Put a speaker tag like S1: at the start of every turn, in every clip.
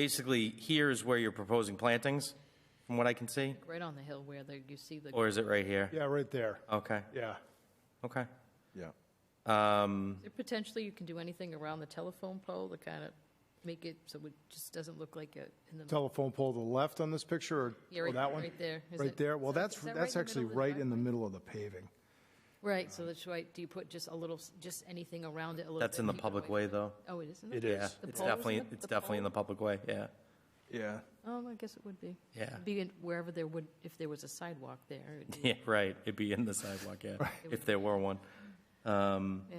S1: basically here is where you're proposing plantings, from what I can see?
S2: Right on the hill where the, you see the,
S1: Or is it right here?
S3: Yeah, right there.
S1: Okay,
S3: Yeah.
S1: okay.
S4: Yeah.
S1: Um,
S2: potentially you can do anything around the telephone pole to kind of make it so it just doesn't look like it in the.
S3: Telephone pole to the left on this picture or-
S2: Yeah,
S3: or
S2: right-
S3: that one?
S2: right there. Is
S3: Right
S2: it-
S3: there. Well,
S2: is that-
S3: that's,
S2: is that
S3: that's
S2: right in the
S3: actually
S2: middle of the
S3: right in the
S2: driveway?
S3: middle of the paving.
S2: Right, so that's why, do you put just a little, s- just anything around it a little bit?
S1: That's in the
S2: keep it
S1: public
S2: away
S1: way,
S2: from-
S1: though.
S2: Oh, it isn't?
S3: It is.
S2: The
S1: It's
S2: poles
S1: definitely,
S2: and the-
S1: it's
S2: the
S1: definitely in the public way, yeah.
S4: Yeah.
S2: Oh, I guess it would be.
S1: Yeah.
S2: It'd Be in wherever there would, if there was a sidewalk there, it would be,
S1: Yeah, right, it'd be in the sidewalk, yeah, if there were one.
S2: yeah.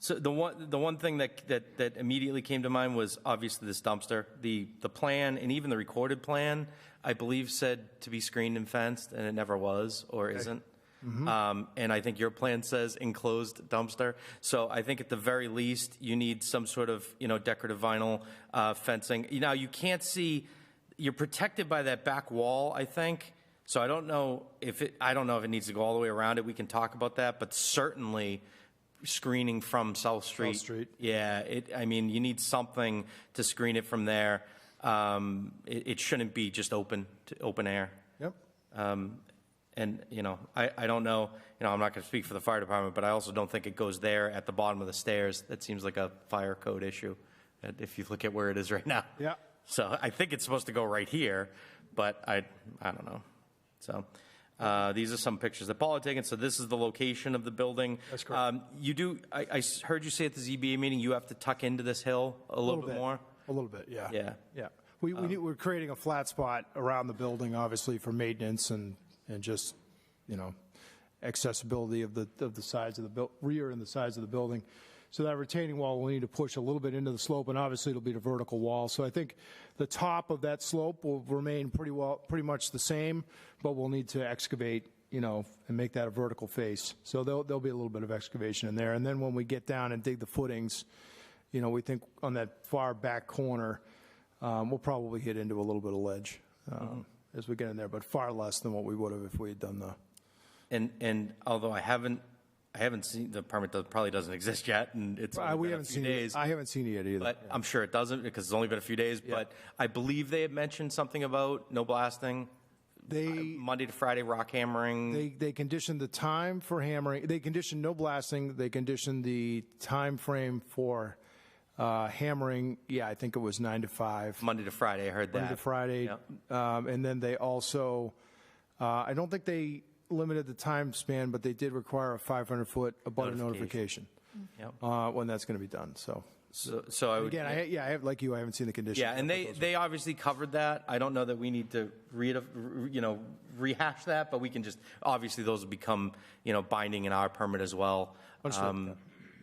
S1: So the one, the one thing that, that, that immediately came to mind was obviously this dumpster. The, the plan and even the recorded plan, I believe said to be screened and fenced and it never was or isn't. Um, and I think your plan says enclosed dumpster. So I think at the very least, you need some sort of, you know, decorative vinyl, uh, fencing. You know, you can't see, you're protected by that back wall, I think. So I don't know if it, I don't know if it needs to go all the way around it. We can talk about that, but certainly screening from South Street.
S3: Street.
S1: Yeah, it, I mean, you need something to screen it from there. Um, it, it shouldn't be just open, to open air.
S3: Yep.
S1: Um, and, you know, I, I don't know, you know, I'm not gonna speak for the fire department, but I also don't think it goes there at the bottom of the stairs. That seems like a fire code issue, uh, if you look at where it is right now.
S3: Yeah.
S1: So I think it's supposed to go right here, but I, I don't know. So, uh, these are some pictures that Paul had taken, so this is the location of the building.
S3: That's correct.
S1: Um, You do, I, I s- heard you say at the ZBA meeting, you have to tuck into this hill a little bit more?
S3: A little bit, yeah.
S1: Yeah.
S3: Yeah. We, we need, we're creating a flat spot around the building, obviously, for maintenance and, and just, you know, accessibility of the, of the sides of the buil, rear and the sides of the building. So that retaining wall, we'll need to push a little bit into the slope, and obviously it'll be the vertical wall. So I think the top of that slope will remain pretty well, pretty much the same, but we'll need to excavate, you know, and make that a vertical face. So there'll, there'll be a little bit of excavation in there. And then when we get down and dig the footings, you know, we think on that far back corner, um, we'll probably hit into a little bit of ledge um,
S1: Mm-hmm.
S3: as we get in there, but far less than what we would have if we had done the,
S1: And, and although I haven't, I haven't seen, the permit does- probably doesn't exist yet, and it's
S3: I,
S1: only
S3: we
S1: been a
S3: haven't
S1: few
S3: seen it,
S1: days.
S3: I haven't seen it yet either.
S1: But I'm sure it doesn't, because it's only been a few days, but I believe they had mentioned something about no blasting,
S3: They,
S1: Monday to Friday rock hammering.
S3: they, they conditioned the time for hammering, they conditioned no blasting, they conditioned the time frame for uh, hammering, yeah, I think it was nine to five.
S1: Monday to Friday, I heard that.
S3: Monday to Friday.
S1: Yep.
S3: Um, and then they also, uh, I don't think they limited the time span, but they did require a 500 foot abutter notification.
S1: Notification. Yep.
S3: Uh, when that's going to be done. So
S1: So, so I would.
S3: again, I, yeah, I have, like you, I haven't seen the conditions.
S1: Yeah, and
S3: yet,
S1: they, they obviously covered that. I don't know that we need to read, you know, rehash that, but we can just, obviously, those will become, you know, binding in our permit as well.
S3: Understood,
S1: Um,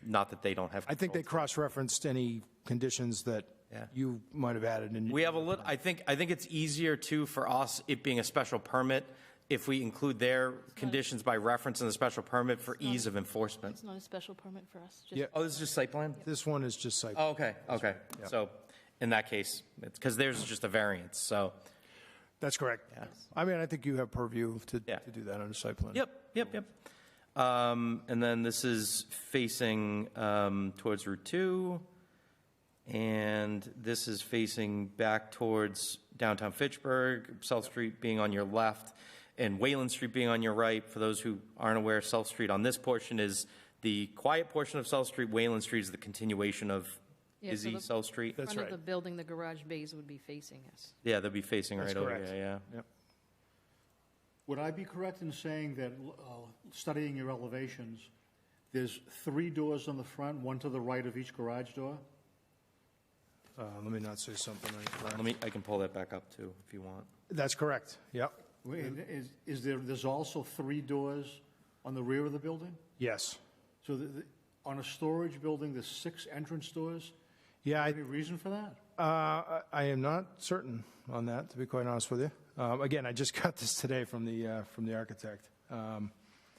S1: Not that they don't have.
S3: but I think
S1: control.
S3: they cross referenced any conditions that
S1: Yeah.
S3: you might have added. And
S1: We have a little, I think, I think it's easier too for us, it being a special permit, if we include their conditions by reference in the special permit for ease of enforcement.
S2: It's not a special permit for us, just.
S3: Yeah.
S1: Oh, this is just site plan?
S3: this one is just like,
S1: Oh, okay, okay. So in that case, it's, because theirs is just a variance, so.
S3: that's correct. I mean, I think you have purview to,
S1: Yeah.
S3: to do that under site plan.
S1: Yep, yep, yep. Um, and then this is facing, um, towards Route Two. And this is facing back towards downtown Fitchburg, South Street being on your left and Wayland Street being on your right. For those who aren't aware, South Street on this portion is the quiet portion of South Street. Wayland Street is the continuation of
S2: Yeah, so
S1: Izzy
S2: the-
S1: South Street.
S3: That's
S2: Front of
S3: right.
S2: the building, the garage bays would be facing us.
S1: Yeah, they'll be facing
S3: That's
S1: right over
S3: correct.
S1: here, yeah.
S3: Yep.
S5: Would I be correct in saying that, uh, studying your elevations, there's three doors on the front, one to the right of each garage door?
S3: Uh, let me not say something. I-
S1: Let me, I can pull that back up too, if you want.
S3: That's correct. Yep.
S5: Wait, Is, is there, there's also three doors on the rear of the building?
S3: Yes.
S5: So the, the- on a storage building, there's six entrance doors?
S3: Yeah. I,
S5: Any reason for that?
S3: Uh, I I am not certain on that, to be quite honest with you. Um, Again, I just got this today from the, uh, from the architect. Um,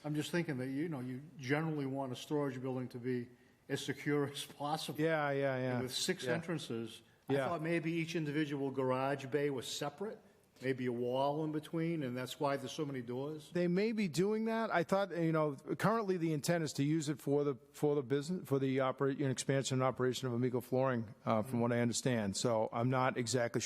S5: I'm just thinking that, you know, you generally want a storage building to be as secure as possible.
S3: Yeah, yeah, yeah.
S5: With six
S3: Yeah.
S5: entrances, I
S3: Yeah.
S5: thought maybe each individual garage bay was separate, maybe a wall in between, and that's why there's so many doors?
S3: They may be doing that. I thought, you know, currently the intent is to use it for the, for the business, for the operate, expansion and operation of Amico Flooring, uh, from what I understand. So I'm not exactly